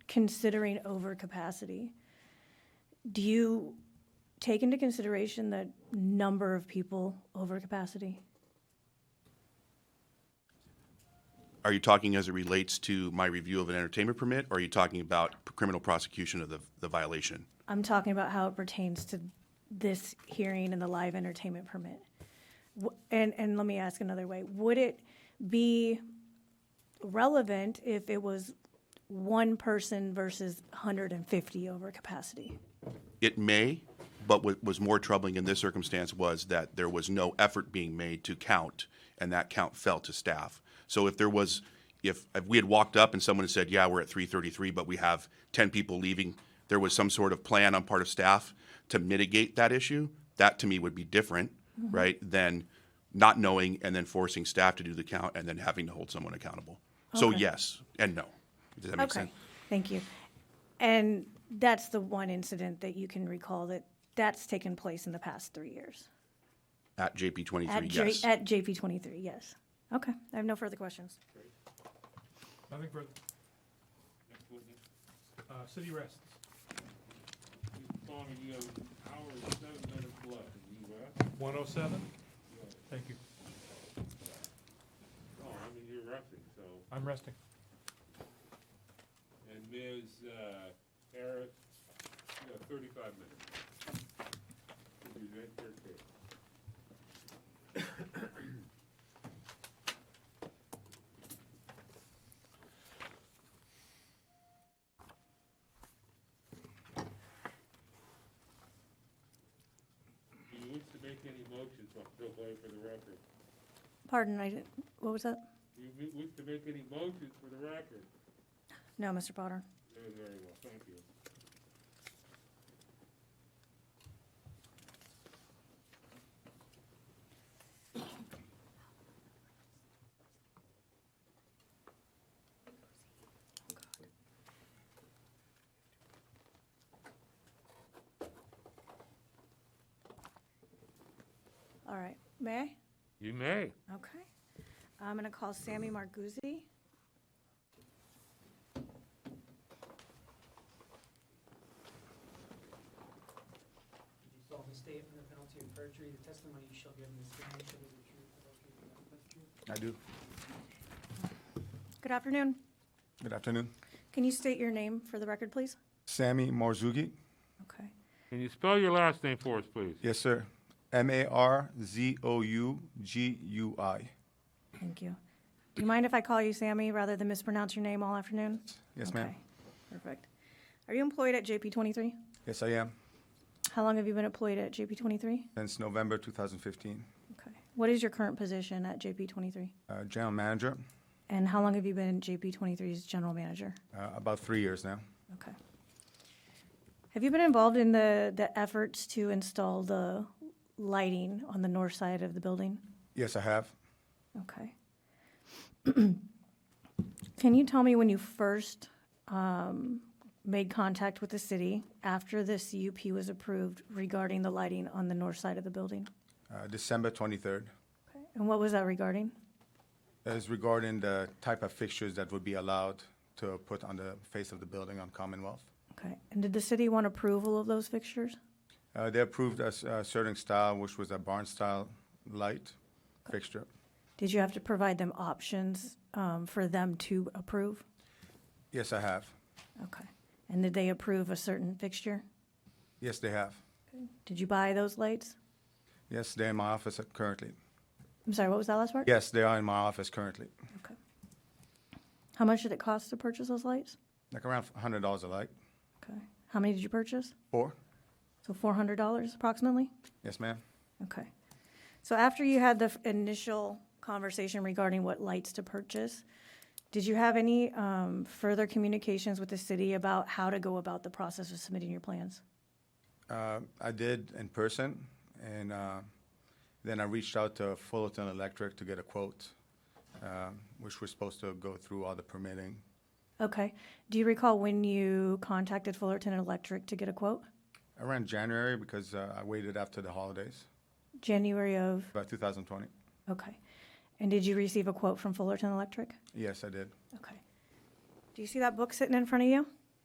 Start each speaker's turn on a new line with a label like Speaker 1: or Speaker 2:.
Speaker 1: considering overcapacity, do you take into consideration the number of people over capacity?
Speaker 2: Are you talking as it relates to my review of an entertainment permit, or are you talking about criminal prosecution of the, the violation?
Speaker 1: I'm talking about how it pertains to this hearing and the live entertainment permit. W- And, and let me ask another way. Would it be relevant if it was one person versus 150 over capacity?
Speaker 2: It may, but what was more troubling in this circumstance was that there was no effort being made to count, and that count fell to staff. So if there was, if, if we had walked up and someone had said, yeah, we're at three thirty-three, but we have ten people leaving, there was some sort of plan on part of staff to mitigate that issue, that to me would be different,
Speaker 1: Mm-hmm.
Speaker 2: right, than not knowing and then forcing staff to do the count and then having to hold someone accountable. So
Speaker 1: Okay.
Speaker 2: yes and no. Does that make sense?
Speaker 1: Okay, thank you. And that's the one incident that you can recall that that's taken place in the past three years?
Speaker 2: At JP
Speaker 1: At
Speaker 2: twenty-three,
Speaker 1: J-
Speaker 2: yes.
Speaker 1: At JP 23, yes. Okay, I have no further questions.
Speaker 3: Nothing further. Uh, city rests. One oh seven? Thank you.
Speaker 4: Oh, I mean, you're resting, so,
Speaker 3: I'm resting.
Speaker 4: and Ms. uh, Harris, you have thirty-five minutes. You're right there, okay. Do you wish to make any motions, so I'll go away for the record?
Speaker 1: Pardon, I didn't, what was that?
Speaker 4: Do you wish to make any motions for the record?
Speaker 1: No, Mr. Potter.
Speaker 4: Very, very well, thank you.
Speaker 1: All right, may I?
Speaker 4: You may.
Speaker 1: Okay. I'm going to call Sammy Marguzzi.
Speaker 5: You do solemnly state under penalty of perjury, the testimony you shall give in this hearing shall be the truth, the whole truth, and nothing but the truth.
Speaker 6: I do.
Speaker 1: Good afternoon.
Speaker 6: Good afternoon.
Speaker 1: Can you state your name for the record, please?
Speaker 6: Sammy Marzuki.
Speaker 1: Okay.
Speaker 4: Can you spell your last name for us, please?
Speaker 6: Yes, sir. M A R Z O U G U I.
Speaker 1: Thank you. Do you mind if I call you Sammy rather than mispronounce your name all afternoon?
Speaker 6: Yes, ma'am.
Speaker 1: Okay, Perfect. Are you employed at JP 23?
Speaker 6: Yes, I am.
Speaker 1: How long have you been employed at JP 23?
Speaker 6: Since November 2015,
Speaker 1: Okay. What is your current position at JP 23?
Speaker 6: uh, general manager,
Speaker 1: And how long have you been JP 23's general manager?
Speaker 6: uh, about three years now.
Speaker 1: Okay. Have you been involved in the, the efforts to install the lighting on the north side of the building?
Speaker 6: Yes, I have.
Speaker 1: Okay. Can you tell me when you first um, made contact with the city after the CUP was approved regarding the lighting on the north side of the building?
Speaker 6: Uh, December 23rd.
Speaker 1: And what was that regarding?
Speaker 6: That is regarding the type of fixtures that would be allowed to put on the face of the building on Commonwealth.
Speaker 1: Okay. And did the city want approval of those fixtures?
Speaker 6: Uh, they approved a, s- a certain style, which was a barn style light fixture.
Speaker 1: Did you have to provide them options um, for them to approve?
Speaker 6: Yes, I have.
Speaker 1: Okay. And did they approve a certain fixture?
Speaker 6: Yes, they have.
Speaker 1: Did you buy those lights?
Speaker 6: Yes, they're in my office currently.
Speaker 1: I'm sorry, what was that last part?
Speaker 6: Yes, they are in my office currently.
Speaker 1: Okay. How much did it cost to purchase those lights?
Speaker 6: Like around hundred dollars a light.
Speaker 1: Okay. How many did you purchase?
Speaker 6: Four?
Speaker 1: So four hundred dollars approximately?
Speaker 6: Yes, ma'am.
Speaker 1: Okay. So after you had the f- initial conversation regarding what lights to purchase, did you have any um, further communications with the city about how to go about the process of submitting your plans?
Speaker 6: Uh, I did in person, and uh, then I reached out to Fullerton Electric to get a quote, uh, which was supposed to go through all the permitting.
Speaker 1: Okay. Do you recall when you contacted Fullerton Electric to get a quote?
Speaker 6: Around January, because uh, I waited after the holidays,
Speaker 1: January of,
Speaker 6: about 2020.
Speaker 1: okay. And did you receive a quote from Fullerton Electric?
Speaker 6: Yes, I did.
Speaker 1: Okay. Do you see that book sitting in front of you?